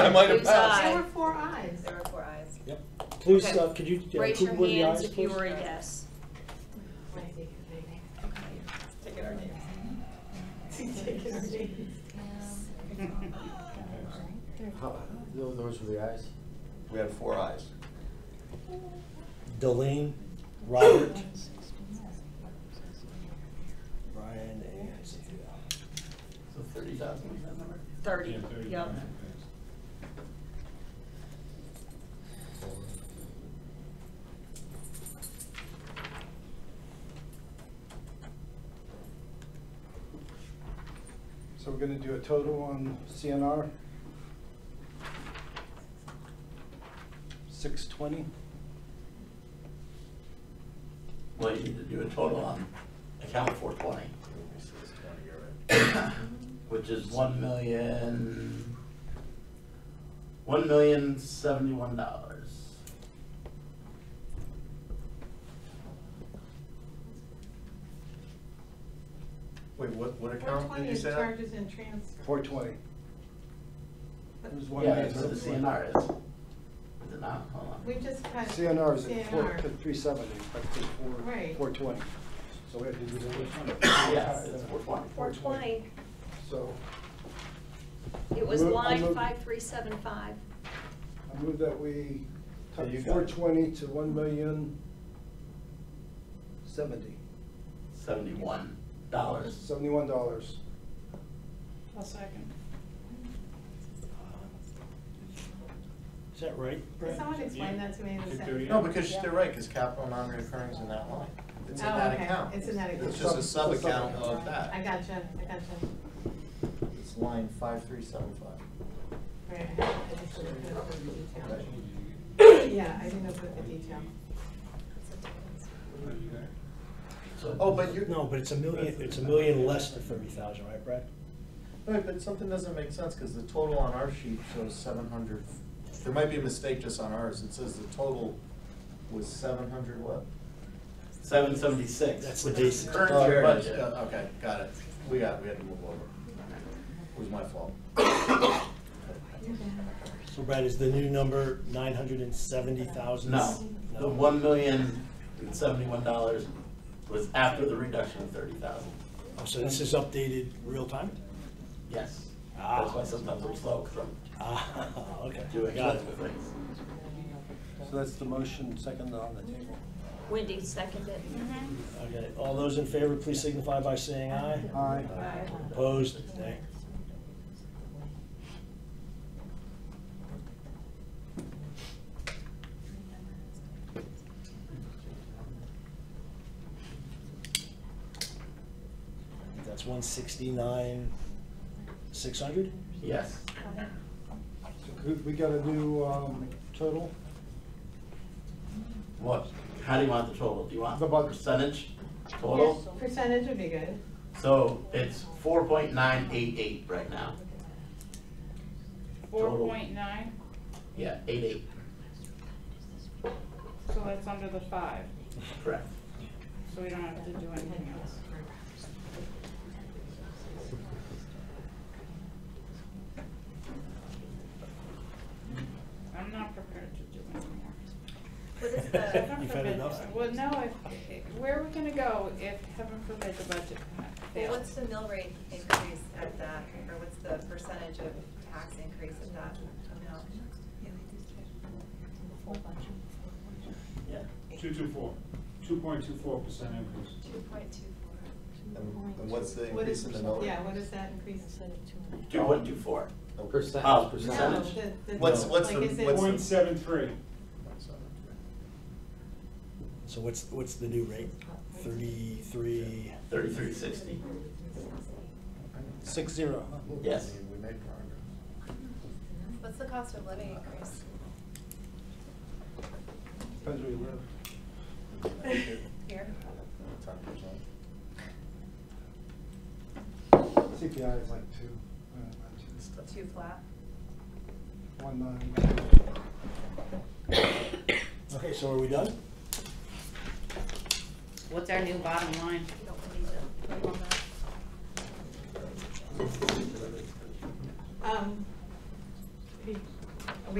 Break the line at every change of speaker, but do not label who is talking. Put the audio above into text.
I might have
Who's
passed.
Aye.
There were four ayes.
There are four ayes.
Yep. Please,
Okay.
uh, could you, yeah,
Raise
who
your
were the ayes,
hands if you
please?
were a yes.
Maybe, maybe.
Okay. Take it our names.
Take our names.
How- tho- Those were the ayes?
We had four eyes.
Delane, Robert. Brian and Cynthia.
So thirty thousand, is that number?
Thirty, yep.
So we're gonna do a total on CNR? Six twenty?
Well, you need to do a total on account four twenty, which is one million, one million seventy-one dollars.
Wait, what, what
Four
account did
twenty
you
is
say that?
charges and transfers.
Four twenty. It was one
Yeah,
million
that's what the
seven
CNR is. Is it not? Hold on.
We just cut.
CNR is at four,
CNR.
three seventy, but it's four,
Right.
four twenty. So we have to do the
Yeah, it's four
other one.
twenty.
Four twenty.
So
It was
Move- I
line
move-
five three seven five.
I move that we
There
cut
you go.
four twenty to one million seventy,
Seventy-one dollars.
seventy-one dollars.
A second.
Is that right? Brad?
Someone explain that to me in a second.
No, because they're right, because capital non-recurring is in that line. It's in that
Oh, okay.
account.
It's in that
It's
account.
just a sub-account of that.
I gotcha, I gotcha.
It's line five three seven five.
Right, I just didn't put up with the detail. Yeah, I didn't put the detail.
So-
Oh, but you're,
No, but it's a million, it's a million less than thirty thousand, right, Brad?
right, but something doesn't make sense, because the total on our sheet shows seven hundred. There might be a mistake just on ours, it says the total was seven hundred what?
Seven seventy-six.
That's the basic.
Current
Oh,
year
budget.
budget.
Uh, Okay, got it, we got, we had to move over. It was my fault.
So Brad, is the new number nine hundred and seventy thousand?
No, the one million and seventy-one dollars was after the reduction of thirty thousand.
Oh, So this is updated real time?
Yes.
Ah.
That's why sometimes I'm slow, 'cause I'm
Ah, okay.
doing
Got
other
it.
things.
So that's the motion, second on the table.
Wendy seconded.
Okay, all those in favor, please signify by saying aye.
Aye.
Opposed, nay. That's one sixty-nine, six hundred?
Yes.
So could- We got a new um, total?
What, how do you want the total? Do you want
The budget.
percentage
Yes,
total?
Percentage would be good.
So it's four point nine eight eight right now.
Four
Total.
point nine,
Yeah, eight eight,
so that's under the five,
correct.
so we don't have to do anything else. I'm not prepared to do anymore.
What is the,
Heaven
You've had
forbid-
enough?
Well, no, if, where are we gonna go if heaven forbid the budget
Well,
fails?
what's the mill rate increase at that, or what's the percentage of tax increase at that amount?
Yeah.
Two two four, two point two four percent increase.
Two point two four.
And and what's the
What
increase
is,
in the mill rate?
yeah, what is that increase?
Two point two four.
Percent,
Oh,
No,
percentage?
the- the-
What's- what's
like,
the-
is it-
what's the-
Point seven three.
So what's, what's the new rate? Thirty-three?
Thirty-three sixty.
Six zero.
Yes.
We made progress.
What's the cost of living increase?
Depends where you live.
Here?
Ten percent.
CPI is like two. uh, around two.
Two flat?
One nine.
Okay, so are we done?
What's our new bottom line?
You don't need to vote on that.
Um, be